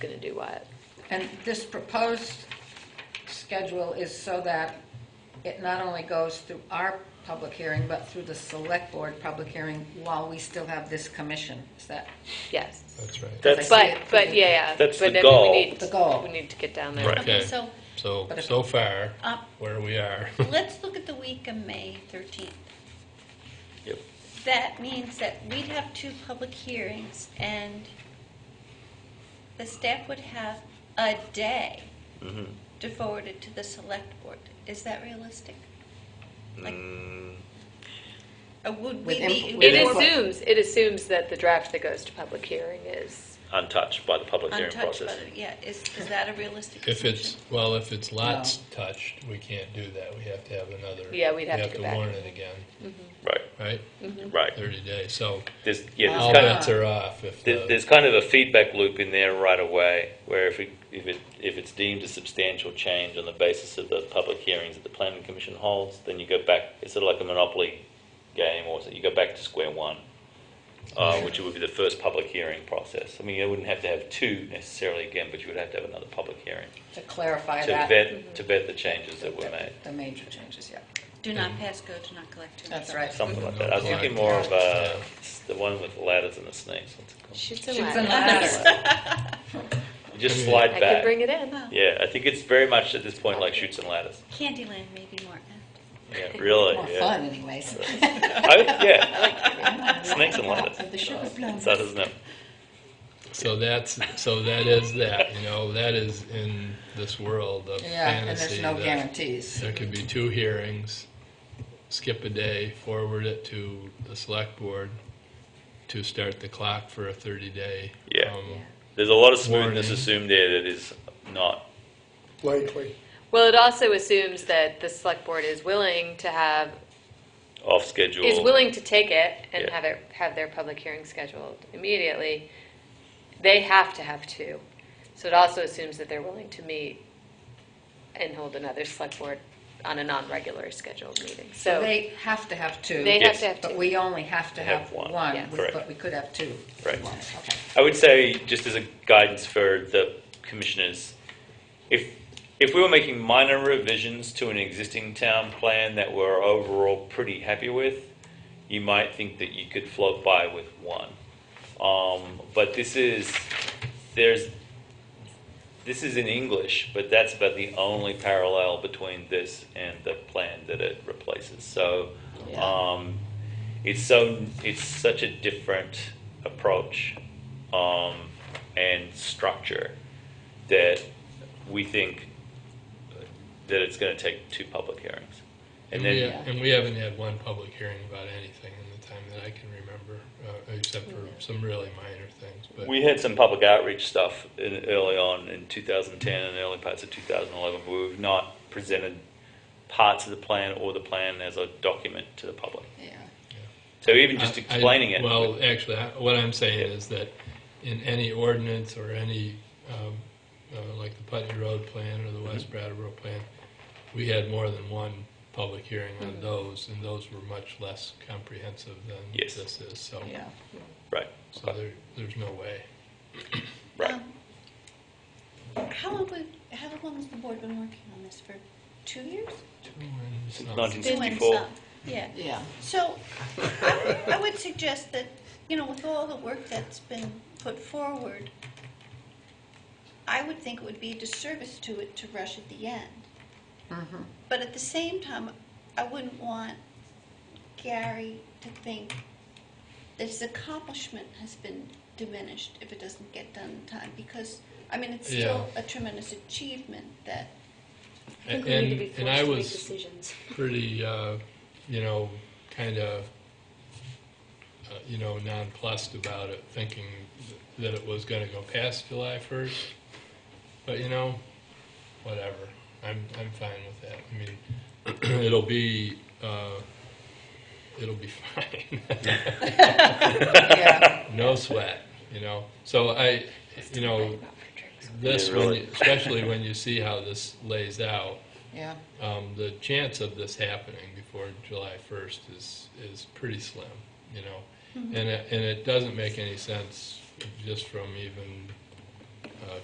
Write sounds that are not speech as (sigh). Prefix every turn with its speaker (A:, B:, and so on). A: going to do what.
B: And this proposed schedule is so that it not only goes through our public hearing, but through the select board public hearing while we still have this commission. Is that
A: Yes.
C: That's right.
B: I
D: That's,
B: see
A: But,
B: it.
A: but yeah, yeah.
D: That's
A: but
D: the
A: I mean, we
D: goal.
A: need-
B: The goal.
A: We need to get down there.
D: Right.
E: Okay,
C: Okay.
E: so
C: So,
B: But if-
C: so far,
E: Uh,
C: where we are. (laughs)
E: let's look at the week of May 13th.
D: Yep.
E: That means that we'd have two public hearings, and the staff would have a day
D: Mhm.
E: to forward it to the select board. Is that realistic? Like-
D: Mm,
E: Or would
B: With
E: we be?
B: input-
E: would
A: It
E: we-
D: is-
A: assumes, it assumes that the draft that goes to public hearing is,
D: Mm, untouched by the public hearing
E: Untouched by
D: process.
E: the- Yeah, is, is that a realistic
C: If it's,
E: assumption?
C: well, if it's lots touched, we can't do that. We have to have another.
A: Yeah, we'd have to go
C: We have
A: back.
C: to warn it again,
D: Right,
C: right?
D: right.
C: Thirty days, so
D: There's, yeah,
B: Wow.
C: all
D: there's kind of,
C: bets are off if
D: there's,
C: the,
D: there's kind of a feedback loop in there right away, where if it, if it, if it's deemed a substantial change on the basis of the public hearings that the planning commission holds, then you go back, it's sort of like a monopoly game, or so you go back to square one, uh, which would be the first public hearing process. I mean, you wouldn't have to have two necessarily again, but you would have to have another public hearing
B: to clarify
D: to
B: that?
D: vet, to vet the changes that were made.
B: The major changes, yeah.
E: Do not pass go, do not collect. do not
B: That's
E: sell.
B: right.
D: Something like that. I was thinking more of uh, the one with the ladders and the snakes. What's it called?
A: shoots and
B: Shoots and
A: ladders.
B: ladders.
D: You just slide
A: (laughs) I
D: back.
A: could bring it in.
E: Wow.
D: yeah, I think it's very much at this point like shoots and ladders.
E: Candyland may be more apt.
A: (laughs)
D: Yeah, really.
B: More
D: yeah.
B: fun anyways.
D: I, yeah. (laughs) Snakes and ladders.
B: The sugar plums.
D: So doesn't it?
C: so that's, so that is that, you know, that is in this world of
B: Yeah, and
C: fantasy.
B: there's no
C: that
B: guarantees.
C: There could be two hearings, skip a day, forward it to the select board to start the clock for a thirty day.
D: Yeah.
C: um,
D: There's a lot of smoothness
C: Warning.
D: assumed there that is not.
F: likely.
A: Well, it also assumes that the select board is willing to have,
D: Off schedule.
A: is willing to take it and
D: Yeah.
A: have it, have their public hearing scheduled immediately. They have to have two. So it also assumes that they're willing to meet and hold another select board on a non-regular scheduled meeting.
B: So
A: So
B: they have to have two.
A: they have
D: Yes.
A: to have
B: But
A: two.
B: we only have to
D: Have
B: have
D: one.
B: one,
A: Yeah.
B: We-
D: Correct.
B: but we could have two. if we
D: Right.
B: wanted. Okay.
D: I would say, just as a guidance for the commissioners, if, if we were making minor revisions to an existing town plan that we're overall pretty happy with, you might think that you could float by with one. Um, but this is, there's, this is in English, but that's about the only parallel between this and the plan that it replaces. So,
B: Yeah.
D: um, it's so it's such a different approach um, and structure that we think that it's going to take two public hearings, and
C: And we,
D: then
C: ha- and we haven't had one public hearing about anything in the time that I can remember, uh, except for some really minor things, but.
D: we had some public outreach stuff in, early on in 2010 and early parts of 2011, but we've not presented parts of the plan or the plan as a document to the public.
B: Yeah.
D: So even just
C: I- I-
D: explaining it,
C: Well, actually, I- what I'm saying is that in any ordinance or any, um, uh, like the Putney Road plan or the West
D: Mm-hmm.
C: Brattleboro plan, we had more than one public hearing on those, and those were much less comprehensive than
D: Yes.
C: this is, so,
B: Yeah.
D: right,
C: so there, there's no way.
D: right.
E: Um, How long, we- how long has the board been working on this, for two years?
C: It's not-
D: 19
E: Two and
D: 64.
E: some. Yeah.
B: Yeah.
E: So I would- I would suggest that, you know, with all the work that's been put forward, I would think it would be a disservice to it to rush at the end.
B: Mhm.
E: But at the same time, I wouldn't want Gary to think that his accomplishment has been diminished if it doesn't get done in time, because, I mean, it's still
C: Yeah.
E: a tremendous achievement that,
A: I think we need to
C: And,
A: be
C: and I
A: forced to make
C: was
A: decisions.
C: pretty, uh, you know, kind of, uh, you know, nonplussed about it, thinking that it was going to go past July 1st. But you know, whatever. I'm I'm fine with that. I mean, (clears throat) it'll be uh, it'll be (laughs) fine.
A: (laughs)
B: Yeah.
C: no sweat. You know. So I, you know, this
D: Yeah,
C: when
D: really.
C: you, especially when you see how this lays out
B: Yeah.
C: um, the chance of this happening before July 1st is, is pretty slim, you know? And it, and it doesn't make any sense just from even uh,